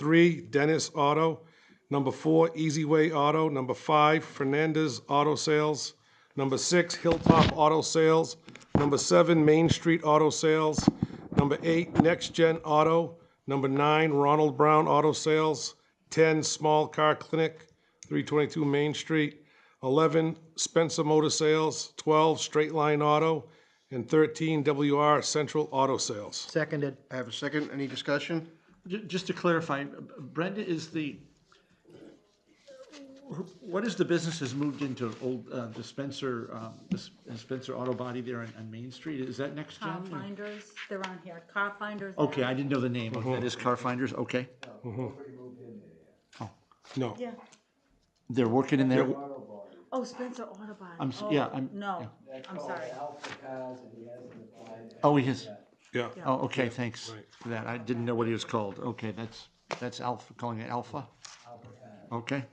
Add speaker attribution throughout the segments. Speaker 1: three, Dennis Auto. Number four, Easy Way Auto. Number five, Fernandez Auto Sales. Number six, Hilltop Auto Sales. Number seven, Main Street Auto Sales. Number eight, Next Gen Auto. Number nine, Ronald Brown Auto Sales. 10, Small Car Clinic, 322 Main Street. 11, Spencer Motor Sales. 12, Straight Line Auto. And 13, WR Central Auto Sales.
Speaker 2: Seconded.
Speaker 3: I have a second. Any discussion?
Speaker 4: Ju- Just to clarify, Brenda is the, what is the business has moved into old uh, dispenser, um, dis- dispenser auto body there on, on Main Street? Is that next
Speaker 5: Car
Speaker 4: gen? or-
Speaker 5: finders, they're on here, car finders.
Speaker 4: Okay, I didn't know the name. Okay, That is Car Finders, okay.
Speaker 1: No.
Speaker 5: Yeah,
Speaker 4: They're working in there.
Speaker 5: oh, Spencer Autobody.
Speaker 4: I'm s-
Speaker 5: Oh,
Speaker 4: yeah, I'm-
Speaker 5: No, I'm sorry.
Speaker 4: Oh, he is.
Speaker 1: Yeah.
Speaker 4: Oh, okay, thanks for that. I didn't know what he was called. Okay, that's, that's Alpha, calling it Alpha? Okay.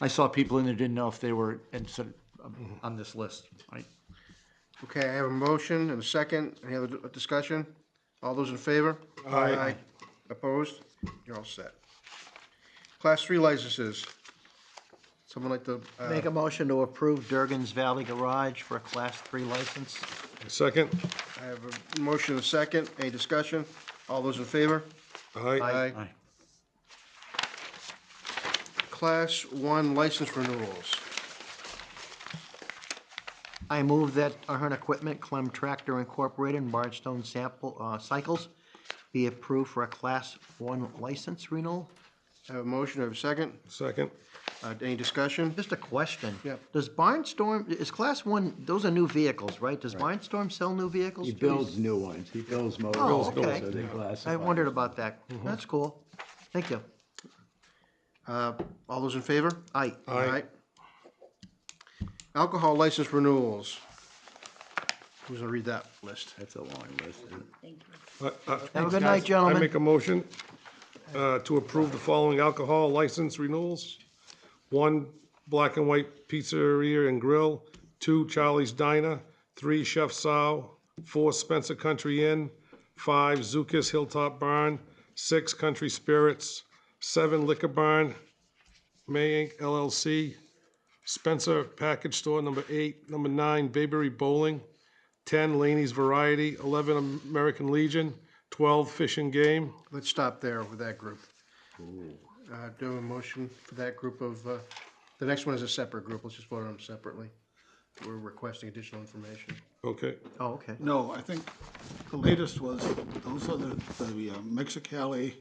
Speaker 4: I saw people in there, didn't know if they were in, sort of, um, on this list. I-
Speaker 3: Okay, I have a motion and a second. Any other d- discussion? All those in favor? Aye. Opposed? You're all set. Class three licenses. Someone like to, uh,
Speaker 2: Make a motion to approve Durgan's Valley Garage for a Class 3 license.
Speaker 1: Second?
Speaker 3: I have a motion and a second. Any discussion? All those in favor?
Speaker 1: Aye.
Speaker 4: Aye.
Speaker 3: Class one license renewals.
Speaker 2: I move that Ahern Equipment, Clem Tractor Incorporated, and Barnstone Sample, uh, Cycles be approved for a Class 1 license renewal.
Speaker 3: I have a motion, I have a second.
Speaker 1: Second?
Speaker 3: Uh, Any discussion?
Speaker 2: Just a question.
Speaker 3: Yeah.
Speaker 2: Does Barnstorm, is Class 1, those are new vehicles, right? Does Barnstorm sell new vehicles?
Speaker 6: He builds new ones, he builds motors.
Speaker 2: Oh, okay.
Speaker 6: So they classify.
Speaker 2: I wondered about that. That's cool. Thank you.
Speaker 3: Uh, All those in favor?
Speaker 2: Aye.
Speaker 3: Uh,
Speaker 1: Aye.
Speaker 3: Alcohol license renewals. Who's gonna read that list?
Speaker 6: That's a long list. isn't it?
Speaker 5: Thank you.
Speaker 1: Uh, uh,
Speaker 2: Have a good night,
Speaker 1: I
Speaker 2: gentlemen.
Speaker 1: make a motion uh, to approve the following alcohol license renewals. One, Black and White Pizzeria and Grill. Two, Charlie's Diner. Three, Chef Sow. Four, Spencer Country Inn. Five, Zukas Hilltop Barn. Six, Country Spirits. Seven, Liquor Barn, May Inc. LLC. Spencer Package Store, number eight. Number nine, Bayberry Bowling. 10 Laney's Variety, 11 American Legion, 12 Fish and Game.
Speaker 3: Let's stop there with that group. Uh, Do a motion for that group of, uh, the next one is a separate group, let's just vote on them separately. We're requesting additional information.
Speaker 1: Okay,
Speaker 2: Oh, okay.
Speaker 7: No, I think the latest was, those are the, the uh, Mexicali,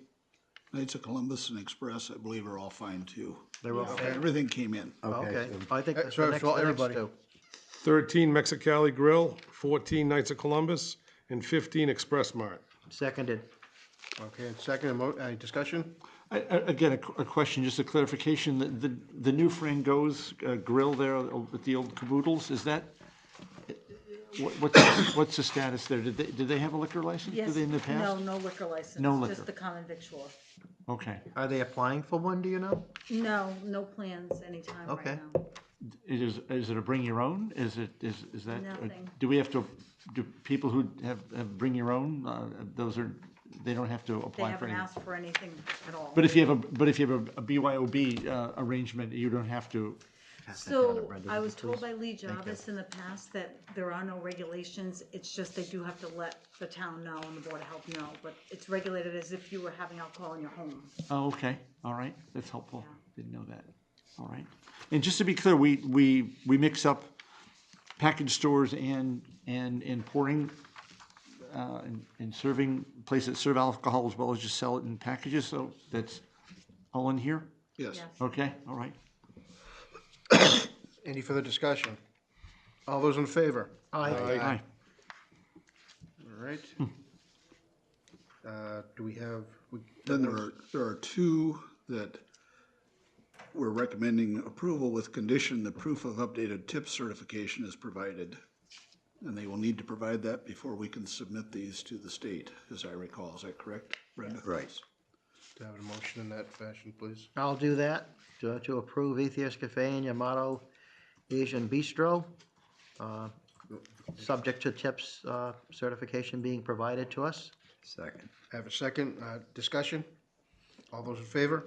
Speaker 7: Knights of Columbus and Express, I believe are all fine too. They were all. Everything came in.
Speaker 2: Okay. I think that's
Speaker 3: so
Speaker 2: the
Speaker 3: it's
Speaker 2: next,
Speaker 3: all-
Speaker 2: the next
Speaker 3: everybody.
Speaker 2: two.
Speaker 1: 13 Mexicali Grill, 14 Knights of Columbus, and 15 Express Mart.
Speaker 2: Seconded.
Speaker 3: Okay, and second, a mo- any discussion?
Speaker 4: I- I- Again, a qu- a question, just a clarification, the- the, the new Frango's uh, grill there with the old caboodles, is that, what- what's, what's the status there? Did they, did they have a liquor license? Did
Speaker 5: Yes,
Speaker 4: they in the
Speaker 5: no,
Speaker 4: past?
Speaker 5: no liquor license.
Speaker 4: No liquor.
Speaker 5: Just the common victual.
Speaker 4: Okay,
Speaker 2: Are they applying for one, do you know?
Speaker 5: No, no plans anytime right
Speaker 2: Okay.
Speaker 5: now.
Speaker 4: It is, is it a bring your own? Is it, is, is that? or
Speaker 5: Nothing.
Speaker 4: Do we have to, do people who have, have bring your own, uh, those are, they don't have to
Speaker 5: They
Speaker 4: apply for
Speaker 5: haven't
Speaker 4: any?
Speaker 5: asked for anything at all.
Speaker 4: But if you have a, but if you have a a BYOB uh, arrangement, you don't have to,
Speaker 5: So I was told by Lee Jarvis in the past that there are no regulations. It's just they do have to let the town know and the Board of Health know. But it's regulated as if you were having alcohol in your home.
Speaker 4: Oh, okay, all right, that's helpful, didn't know that, all right. And just to be clear, we, we, we mix up package stores and, and, and pouring, uh, and, and serving, places that serve alcohol as well as just sell it in packages, so that's all in here?
Speaker 7: Yes.
Speaker 5: Yes.
Speaker 4: Okay, all right,
Speaker 3: Any further discussion? All those in favor?
Speaker 2: Aye. Hmm.
Speaker 4: aye.
Speaker 3: All right. Uh, Do we have, we-
Speaker 7: Then there are, there are two that we're recommending approval with condition the proof of updated tip certification is provided. And they will need to provide that before we can submit these to the state, as I recall. Is that correct, Brenda? Right.
Speaker 3: do I have a motion in that fashion, please?
Speaker 2: I'll do that, to, to approve Atheist Cafe and Yamato Asian Bistro, uh, subject to TIPS uh, certification being provided to us.
Speaker 6: Second.
Speaker 3: I have a second, uh, discussion? All those in favor?